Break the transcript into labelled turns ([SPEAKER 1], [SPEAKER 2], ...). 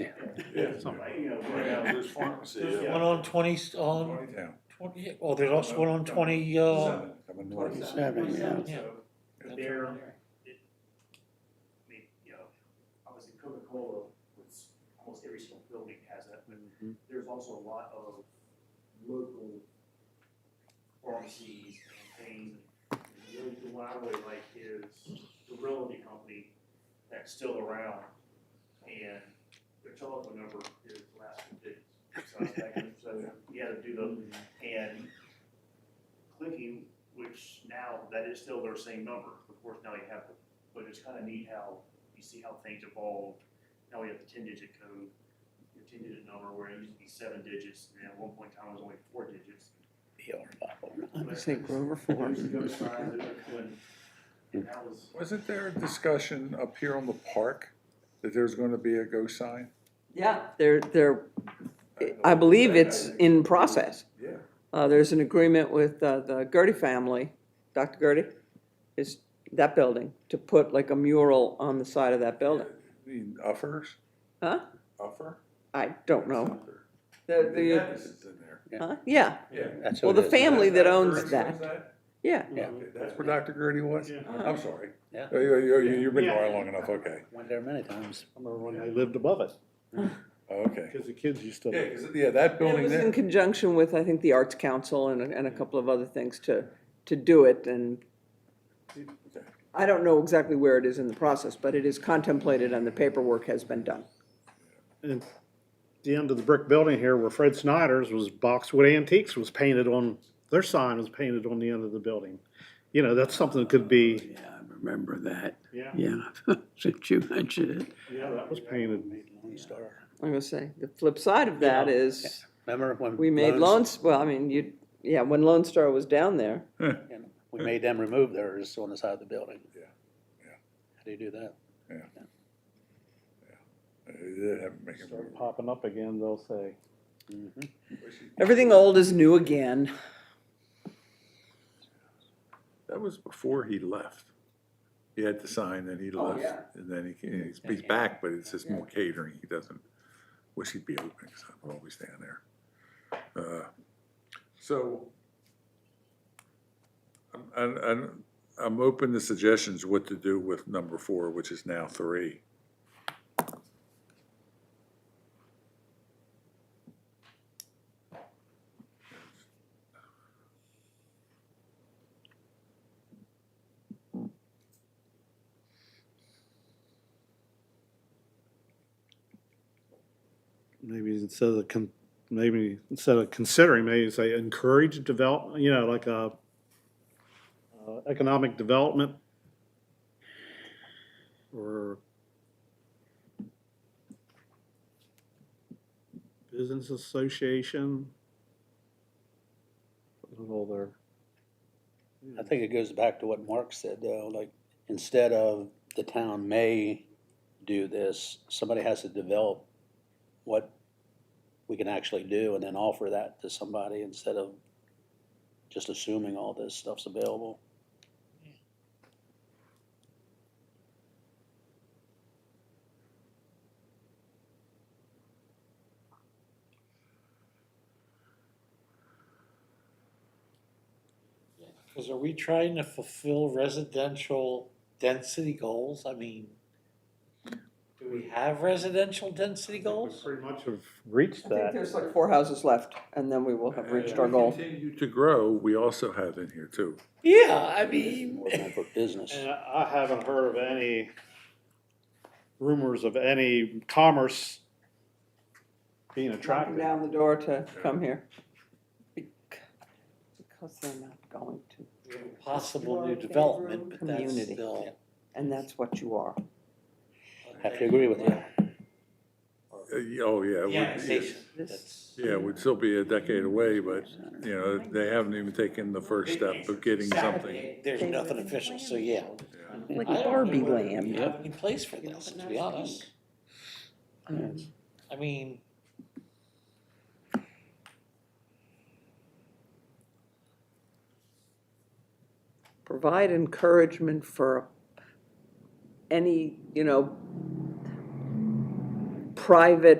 [SPEAKER 1] Yeah.
[SPEAKER 2] Something.
[SPEAKER 1] Yeah, there's pharmacy.
[SPEAKER 3] There's
[SPEAKER 1] yeah.
[SPEAKER 3] one on twenty, on
[SPEAKER 4] Twenty-two.
[SPEAKER 3] twenty, oh, there's also one on twenty, uh,
[SPEAKER 4] Seven, coming north.
[SPEAKER 5] Seven, yeah.
[SPEAKER 2] So
[SPEAKER 3] Yeah.
[SPEAKER 2] there, it, I mean, you know, obviously Coca-Cola, which almost every single building has that, but there's also a lot of local pharmacies and things. And Really, the one I really like is the Realty Company that's still around, and their telephone number is the last two digits. So I was thinking, So you had to do the, and clicking, which now, that is still their same number, of course, now you have, the- but it's kind of neat how, you see how things evolved. Now we have the ten-digit code, your ten-digit number, where it used to be seven digits, and at one point in time, it was only four digits.
[SPEAKER 5] I just think Grover
[SPEAKER 2] Those
[SPEAKER 5] Ford.
[SPEAKER 2] who go signs, they're doing- And that was,
[SPEAKER 4] Wasn't there a discussion up here on the park that there's gonna be a go sign?
[SPEAKER 5] Yeah, they're, they're, I believe it's in process.
[SPEAKER 4] Yeah.
[SPEAKER 5] Uh, there's an agreement with, uh, the Gertie family, Dr. Gertie, is that building, to put like a mural on the side of that building.
[SPEAKER 4] The uffers,
[SPEAKER 5] Huh?
[SPEAKER 4] uffer?
[SPEAKER 5] I don't know.
[SPEAKER 4] Uffer.
[SPEAKER 5] The, the,
[SPEAKER 4] Dennis is in there.
[SPEAKER 5] huh? Yeah,
[SPEAKER 4] Yeah.
[SPEAKER 6] That's
[SPEAKER 5] Well,
[SPEAKER 6] who it
[SPEAKER 5] the
[SPEAKER 6] is.
[SPEAKER 5] family that owns
[SPEAKER 4] Gertie's
[SPEAKER 5] that. yeah.
[SPEAKER 6] Yeah.
[SPEAKER 4] Okay, That's where Dr. Gertie was? I'm sorry.
[SPEAKER 6] Yeah.
[SPEAKER 4] Oh, You, you, you- you've been there long enough, okay,
[SPEAKER 6] Went there many times.
[SPEAKER 7] Remember when they lived above it,
[SPEAKER 4] Oh, okay.
[SPEAKER 7] because the kids used to.
[SPEAKER 4] Yeah, 'cause- yeah, that
[SPEAKER 5] It
[SPEAKER 4] building
[SPEAKER 5] was in
[SPEAKER 4] there,
[SPEAKER 5] conjunction with, I think, the Arts Council and, a- and a couple of other things to, to do it, and I don't know exactly where it is in the process, but it is contemplated and the paperwork has been done.
[SPEAKER 7] And The end of the brick building here where Fred Snyder's was Boxwood Antiques was painted on, their sign was painted on the end of the building. You know, that's something that could be,
[SPEAKER 5] Yeah, I remember that,
[SPEAKER 2] yeah,
[SPEAKER 5] yeah, since you mentioned it.
[SPEAKER 2] yeah, that
[SPEAKER 7] was painted.
[SPEAKER 6] Lone Star.
[SPEAKER 5] I'm gonna say, the flip side of that
[SPEAKER 6] Yeah.
[SPEAKER 5] is,
[SPEAKER 6] Remember when?
[SPEAKER 5] we made Lone,
[SPEAKER 6] loans?
[SPEAKER 5] S- well, I mean, you, yeah, when Lone Star was down there,
[SPEAKER 6] We made them remove theirs on the side of the building.
[SPEAKER 4] Yeah, yeah.
[SPEAKER 6] How do you do that?
[SPEAKER 4] Uh, they haven't made it.
[SPEAKER 7] start popping up again, they'll say.
[SPEAKER 5] everything old is new again.
[SPEAKER 4] That was before he left. He had to sign, then he
[SPEAKER 5] Oh,
[SPEAKER 4] left,
[SPEAKER 5] yeah.
[SPEAKER 4] and then he, came- he's, he's back, but it's just more catering, he doesn't, wish he'd be open, because I'm always down there. Uh, So, I'm, I'm, I'm- I'm open to suggestions what to do with number four, which is now three.
[SPEAKER 7] Maybe instead of, con- maybe instead of considering, maybe say encourage development, you know, like a uh, economic development or business association. Put it all there.
[SPEAKER 6] I think it goes back to what Mark said though, like, instead of the town may do this, somebody has to develop what we can actually do and then offer that to somebody instead of just assuming all this stuff's available.
[SPEAKER 3] Cause are we trying to fulfill residential density goals? I mean, do we have residential density goals?
[SPEAKER 7] Pretty much have reached
[SPEAKER 5] I think
[SPEAKER 7] that.
[SPEAKER 5] there's like four houses left, and then we will have reached our goal.
[SPEAKER 4] Continue to grow, we also have in here too.
[SPEAKER 3] Yeah, I
[SPEAKER 6] It's
[SPEAKER 3] mean,
[SPEAKER 6] More meant for business.
[SPEAKER 7] And I haven't heard of any rumors of any commerce being
[SPEAKER 5] knocking
[SPEAKER 7] attracted.
[SPEAKER 5] down the door to come here. Bec- Because they're not going to,
[SPEAKER 3] possible new development, but that's
[SPEAKER 5] Community.
[SPEAKER 3] still.
[SPEAKER 5] and that's what you are.
[SPEAKER 6] Have to agree with you.
[SPEAKER 4] Uh, yeah, Oh, yeah. it would-
[SPEAKER 3] Annexation, that's.
[SPEAKER 4] Yeah, we'd still be a decade away, but, you know, they haven't even taken the first step of getting something.
[SPEAKER 3] There's nothing official, so yeah.
[SPEAKER 5] Like
[SPEAKER 3] I don't know
[SPEAKER 5] Barbie
[SPEAKER 3] whether
[SPEAKER 5] land.
[SPEAKER 3] We have any place for this, to be honest.
[SPEAKER 5] Mm.
[SPEAKER 3] I mean.
[SPEAKER 5] Provide encouragement for any, you know, private